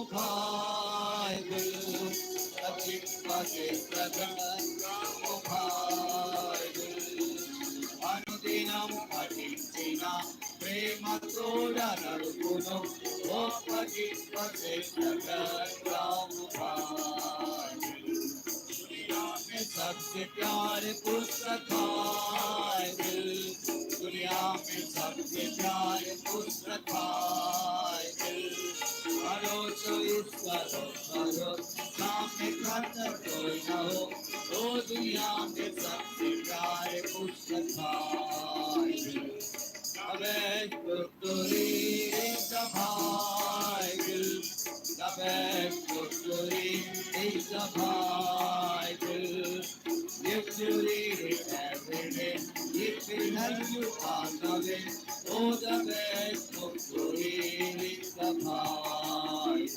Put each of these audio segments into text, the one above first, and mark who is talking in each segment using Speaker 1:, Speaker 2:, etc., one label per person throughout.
Speaker 1: गंगामुखाय अचिप्रगंगामुखाय అనుదినం పఠించిన ప్రేమ తోడనడుకును గొప్ప చిత్త में सबसे प्यारे पुस्तकाय दिल दुनिया में सबसे प्यारे पुस्तकाय दिल करो तो इस करो करो सामने खाता कोई न हो ओ दुनिया में सबसे प्यारे पुस्तकाय दिल कबे तुरी सभाय दिल Dabek Kuturi is the Bible. If you read it every day, it will help you on the way. Oh, the best Kuturi is the Bible.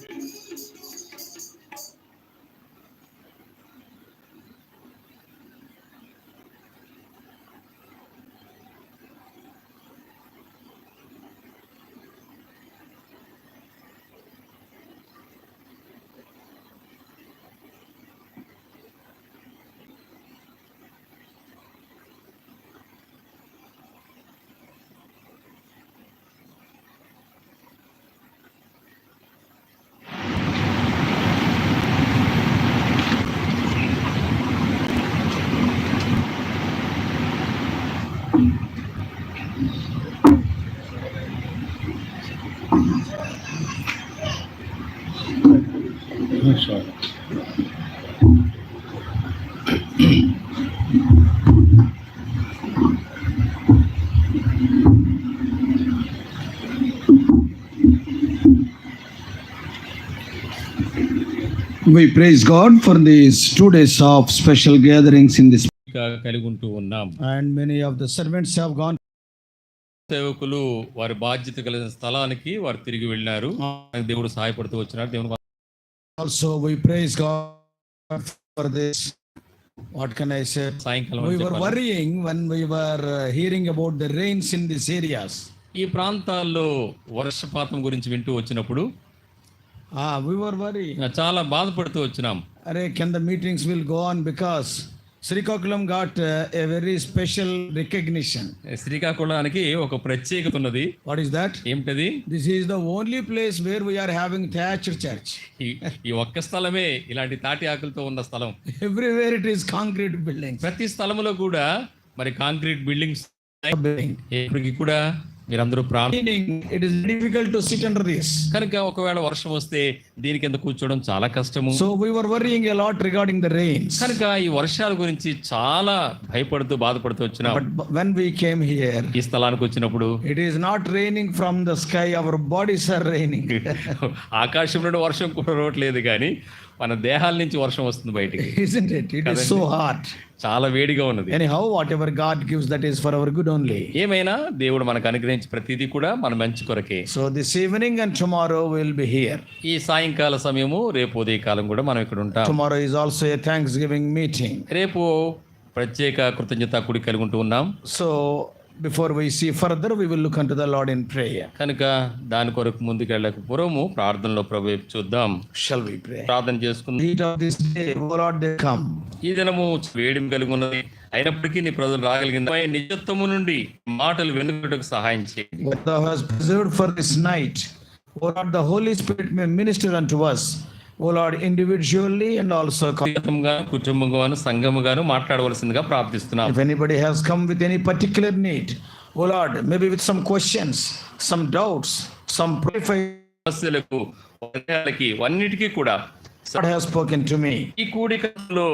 Speaker 2: We praise God for these two days of special gatherings in this.
Speaker 3: గా కలిగి ఉంటూ ఉన్నాం
Speaker 2: And many of the servants have gone.
Speaker 3: సేవకులు వారి బాధ్యత కలిగిన స్థలానికి వారు తిరిగి వెళ్ళినారు దేవుడు సహాయపడుతూ వచ్చినారు దేవుని వా-
Speaker 2: Also, we praise God for this. What can I say?
Speaker 3: సాయంకాలం
Speaker 2: We
Speaker 3: అని
Speaker 2: were
Speaker 3: చెప్పాలి.
Speaker 2: worrying when we were uh, hearing about the rains in these areas.
Speaker 3: ఈ ప్రాంతాల్లో వర్షపాతం గురించి వింటూ వచ్చినప్పుడు
Speaker 2: Ah, we were worried.
Speaker 3: చాలా బాధపడుతూ వచ్చినాం
Speaker 2: Arey, can the meetings will go on because Srikakulam got uh, a very special recognition.
Speaker 3: శ్రీకాకుళానికి ఒక ప్రత్యేకత ఉన్నది
Speaker 2: What is that?
Speaker 3: ఏమిటది
Speaker 2: This is the only place where we are having thatched church.
Speaker 3: ఈ ఈ ఒక్క స్థలమే ఇలాంటి తాటి ఆకులతో ఉన్న స్థలం
Speaker 2: Everywhere it is concrete buildings.
Speaker 3: ప్రతి స్థలములో కూడా మరి కాంక్రీట్ బిల్డింగ్స్
Speaker 2: Building.
Speaker 3: ఇప్పటికి కూడా మీరందరూ ప్రార్థన
Speaker 2: meaning it is difficult to sit under this.
Speaker 3: కనుక ఒకవేళ వర్షం వస్తే దీని కింద కూర్చోవడం చాలా కష్టము
Speaker 2: So we were worrying a lot regarding the rains.
Speaker 3: కనుక ఈ వర్షాల గురించి చాలా భయపడుతూ బాధపడుతూ వచ్చినాం
Speaker 2: But b- when we came here,
Speaker 3: ఈ స్థలానికి వచ్చినప్పుడు
Speaker 2: it is not raining from the sky, our bodies are raining.
Speaker 3: ఆకాశం నుండి వర్షం కూడా రావట్లేదు కానీ మన దేహాల నుంచి వర్షం వస్తుంది బయటికి
Speaker 2: Isn't it? It is so hot.
Speaker 3: చాలా వేడిగా ఉన్నది
Speaker 2: Anyhow, whatever God gives, that is for our good only.
Speaker 3: ఏమైనా దేవుడు మనకు అనుగ్రహించి ప్రతిదీ కూడా మన మంచి కొరకే
Speaker 2: So this evening and tomorrow we'll be here.
Speaker 3: ఈ సాయంకాల సమయము రేపు ఉదయకాలం కూడా మనం ఇక్కడ ఉంటాం
Speaker 2: Tomorrow is also a Thanksgiving meeting.
Speaker 3: రేపు ప్రత్యేక కృతజ్ఞత కూడి కలిగి ఉంటూ ఉన్నాం
Speaker 2: So before we see further, we will look unto the Lord in prayer.
Speaker 3: కనుక దాని కొరకు ముందుకు వెళ్ళక పూర్వము ప్రార్థనలో ప్రభు వైపు చూద్దాం
Speaker 2: Shall we pray?
Speaker 3: ప్రార్థన చేసుకుందాం
Speaker 2: Heat of this day, O Lord, they come.
Speaker 3: ఈ దినము వేడిమి కలిగి ఉన్నది అయినప్పటికీ నీ ప్రజలు రాగలిగింది ఆయన నిజత్వము నుండి మాటలు వెనుకటకు సహాయం చేయి
Speaker 2: what thou hast preserved for this night. O Lord, the Holy Spirit may minister unto us, O Lord, individually and also. co-
Speaker 3: వ్యక్తిగతంగా కుటుంబంగాను సంఘముగాను మాట్లాడవలసిందిగా ప్రార్థిస్తున్నాం
Speaker 2: If anybody has come with any particular need, O Lord, maybe with some questions, some doubts, some prayer,
Speaker 3: సమస్యలకు వినయాలకి అన్నిటికీ కూడా
Speaker 2: God has spoken to me.
Speaker 3: ఈ కూడికలో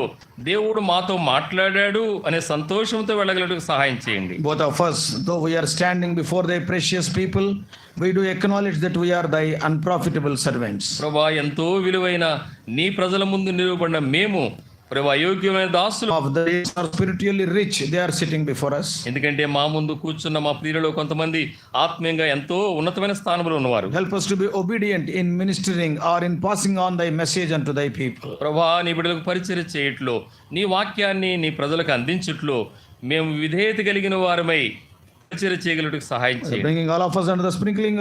Speaker 3: దేవుడు మాతో మాట్లాడాడు అనే సంతోషంతో వెళ్ళగలటకు సహాయం చేయండి
Speaker 2: Both of us, though we are standing before thy precious people, we do acknowledge that we are thy unprofitable servants.
Speaker 3: ప్రభా ఎంతో విలువైన నీ ప్రజల ముందు నిలువబడిన మేము ప్రభా యోగ్యమైన దాసులు
Speaker 2: Of the days are spiritually rich, they are sitting before us.
Speaker 3: ఎందుకంటే మా ముందు కూర్చున్న మా ప్రియులలో కొంతమంది ఆత్మీయంగా ఎంతో ఉన్నతమైన స్థానంలో ఉన్నవారు
Speaker 2: Help us to be obedient in ministering or in passing on thy message unto thy people.
Speaker 3: ప్రభా నీ బిడ్డలకు పరిచయం చేయట్లో నీ వాక్యాన్ని నీ ప్రజలకు అందించట్లో మేము విధేయత కలిగిన వారమై పరిచయం చేయగలటకు సహాయం చేయండి
Speaker 2: Bringing all of us under the sprinkling